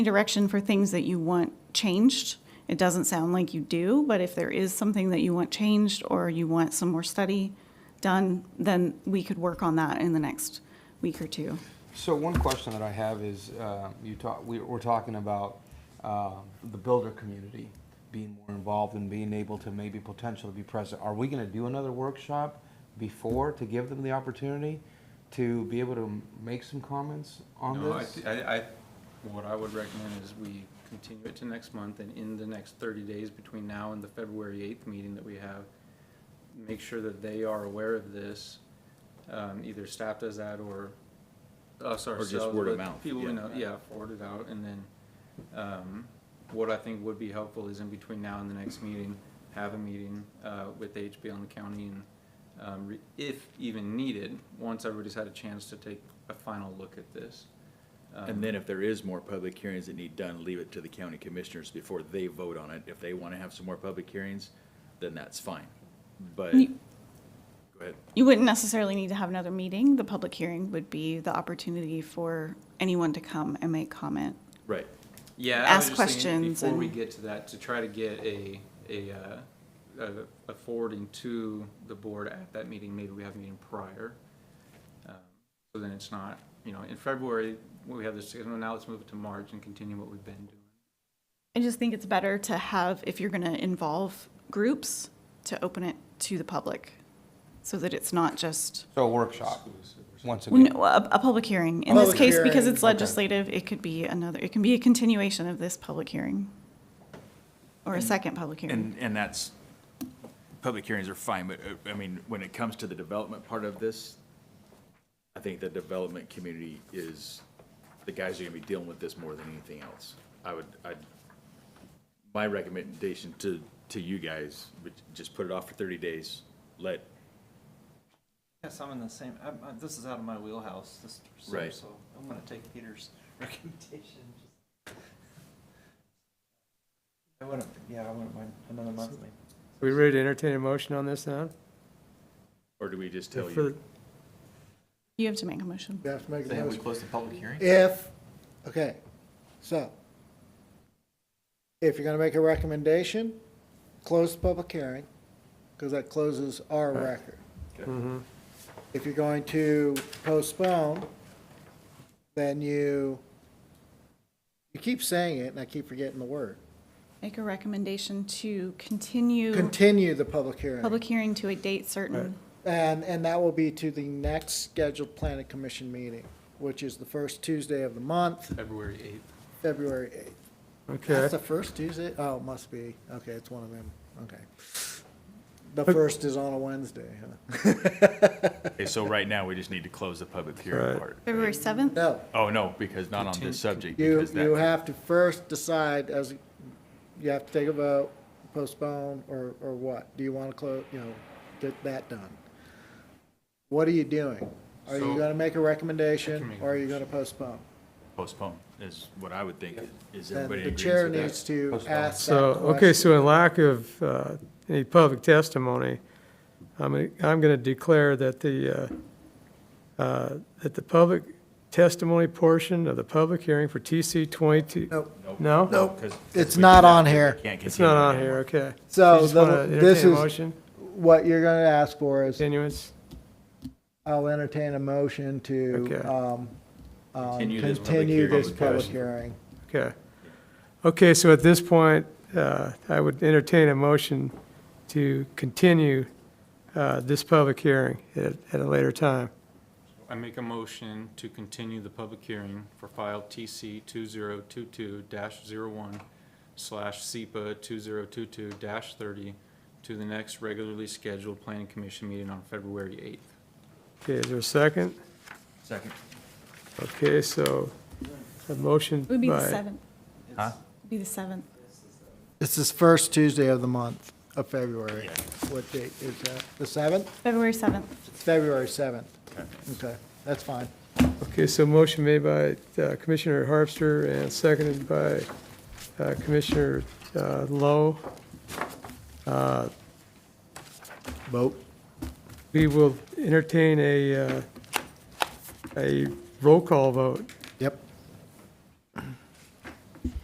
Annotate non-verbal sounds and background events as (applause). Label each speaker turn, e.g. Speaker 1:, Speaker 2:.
Speaker 1: direction for things that you want changed. It doesn't sound like you do, but if there is something that you want changed or you want some more study done, then we could work on that in the next week or two.
Speaker 2: So one question that I have is, uh, you talk, we, we're talking about uh, the builder community being more involved and being able to maybe potentially be present. Are we going to do another workshop before to give them the opportunity to be able to m- make some comments on
Speaker 3: No, I,
Speaker 2: this?
Speaker 3: thi- I, I- what I would recommend is we continue it to next month, and in the next thirty days between now and the February eighth meeting that we have, make sure that they are aware of this, um, either staff does that or us
Speaker 4: Or just
Speaker 3: ourselves.
Speaker 4: word of
Speaker 3: but
Speaker 4: mouth,
Speaker 3: People we
Speaker 4: yeah.
Speaker 3: know, yeah, forward it out, and then, um, what I think would be helpful is in between now and the next meeting, have a meeting, uh, with HB on the county and, um, re- if even needed, once everybody's had a chance to take a final look at this. Um,
Speaker 4: And then if there is more public hearings that need done, leave it to the county commissioners before they vote on it. If they want to have some more public hearings, then that's fine. But, go
Speaker 1: You-
Speaker 4: ahead.
Speaker 1: You wouldn't necessarily need to have another meeting. The public hearing would be the opportunity for anyone to come and make comment.
Speaker 4: Right.
Speaker 3: Yeah, I was
Speaker 1: ask
Speaker 3: just thinking
Speaker 1: questions
Speaker 3: Before we
Speaker 1: and-
Speaker 3: get to that, to try to get a, a, uh, a- a forwarding to the board at that meeting, maybe we have a meeting prior. Um, So then it's not, you know, in February, we have this, well, now let's move it to March and continue what we've been doing.
Speaker 1: I just think it's better to have, if you're going to involve groups, to open it to the public so that it's not just,
Speaker 2: So a workshop, once
Speaker 1: Well,
Speaker 2: again.
Speaker 1: no, a, a public hearing. In this
Speaker 2: Public
Speaker 1: case, because it's
Speaker 2: hearing, okay.
Speaker 1: legislative, it could be another, it can be a continuation of this public hearing or a second public hearing.
Speaker 4: And, and that's, public hearings are fine, but, uh, I mean, when it comes to the development part of this, I think the development community is, the guys who are gonna be dealing with this more than anything else. I would, I, my recommendation to, to you guys, would just put it off for thirty days, let
Speaker 5: Yes, I'm in the same, I'm, I'm, this is out of my wheelhouse, this, so,
Speaker 4: Right.
Speaker 5: so I'm gonna take Peter's (laughs) recommendation. just- I wouldn't, yeah, I wouldn't mind another monthly.
Speaker 6: We ready to entertain a motion on this now?
Speaker 4: Or do we just tell
Speaker 6: For-
Speaker 4: you?
Speaker 1: You have to make a motion.
Speaker 7: You have to make a
Speaker 8: Say, have we
Speaker 7: motion.
Speaker 8: closed the public hearing?
Speaker 7: If, okay, so, if you're gonna make a recommendation, close the public hearing, because that closes our record. If you're going to postpone, then you, you keep saying it, and I keep forgetting the word.
Speaker 1: Make a recommendation to continue
Speaker 7: Continue the public hearing,
Speaker 1: public hearing to a date certain.
Speaker 7: and, and that will be to the next scheduled planning commission meeting, which is the first Tuesday of the month,
Speaker 3: February eighth.
Speaker 7: February 8th.
Speaker 6: Okay,
Speaker 7: That's the first Tuesday? Oh, it must be. Okay, it's one of them. Okay. The
Speaker 6: But-
Speaker 7: first is on a Wednesday, huh?
Speaker 4: Okay, so right now, we just need to close the public hearing
Speaker 6: Right.
Speaker 4: part.
Speaker 1: February 7th?
Speaker 7: No,
Speaker 4: Oh, no, because not on this subject,
Speaker 7: you,
Speaker 4: because
Speaker 7: you
Speaker 4: that,
Speaker 7: have to first decide as, you have to take a vote, postpone, or, or what? Do you want to close, you know, get that done? What are you doing? Are you
Speaker 3: So-
Speaker 7: going to make a
Speaker 3: can
Speaker 7: recommendation
Speaker 3: make a
Speaker 7: or are you going to postpone?
Speaker 4: postpone, is what I would think. Is
Speaker 7: Then
Speaker 4: everybody
Speaker 7: the
Speaker 4: agrees
Speaker 7: chair
Speaker 4: with that?
Speaker 7: needs to
Speaker 2: Postpone.
Speaker 7: ask that
Speaker 6: so, okay,
Speaker 7: question.
Speaker 6: so in lack of uh, any public testimony, I'm, gonna- I'm going to declare that the, uh, uh, that the public testimony portion of the public hearing for TC 22.
Speaker 7: Nope.
Speaker 6: No?
Speaker 7: Nope.
Speaker 4: 'Cause- 'cause
Speaker 7: It's
Speaker 4: we
Speaker 7: not
Speaker 4: did that,
Speaker 7: on
Speaker 4: we
Speaker 7: here.
Speaker 4: can't
Speaker 6: It's
Speaker 4: continue
Speaker 6: not on
Speaker 4: it
Speaker 6: here,
Speaker 4: anymore.
Speaker 6: okay.
Speaker 7: So
Speaker 6: You just wanna
Speaker 7: the- this
Speaker 6: entertain a
Speaker 7: is,
Speaker 6: motion,
Speaker 7: what you're going to ask for is
Speaker 6: Continuance,
Speaker 7: I'll entertain a motion to,
Speaker 6: Okay.
Speaker 7: um, um,
Speaker 4: Continue this public
Speaker 7: continue
Speaker 4: hearing.
Speaker 7: this public
Speaker 4: Public
Speaker 7: hearing.
Speaker 6: okay. Okay, so at this point, uh, I would entertain a motion to continue uh, this public hearing at at a later time.
Speaker 3: I make a motion to continue the public hearing for file TC two zero two two dash zero one slash SEPA two zero two two dash thirty to the next regularly scheduled planning commission meeting on February eighth.
Speaker 6: Okay, is there a second?
Speaker 4: Second.
Speaker 6: Okay, so a motion
Speaker 1: It would be the
Speaker 6: by,
Speaker 1: 7th.
Speaker 4: Huh?
Speaker 1: Be the 7th.
Speaker 7: This is first Tuesday of the month of February. What date is that? The 7th?
Speaker 1: February 7th.
Speaker 7: It's February 7th. Okay, that's fine.
Speaker 6: okay, so motion made by uh, Commissioner Harvester and seconded by uh, Commissioner uh, Lowe. Uh,
Speaker 7: Vote.
Speaker 6: We will entertain a, uh, a roll call vote.
Speaker 7: Yep.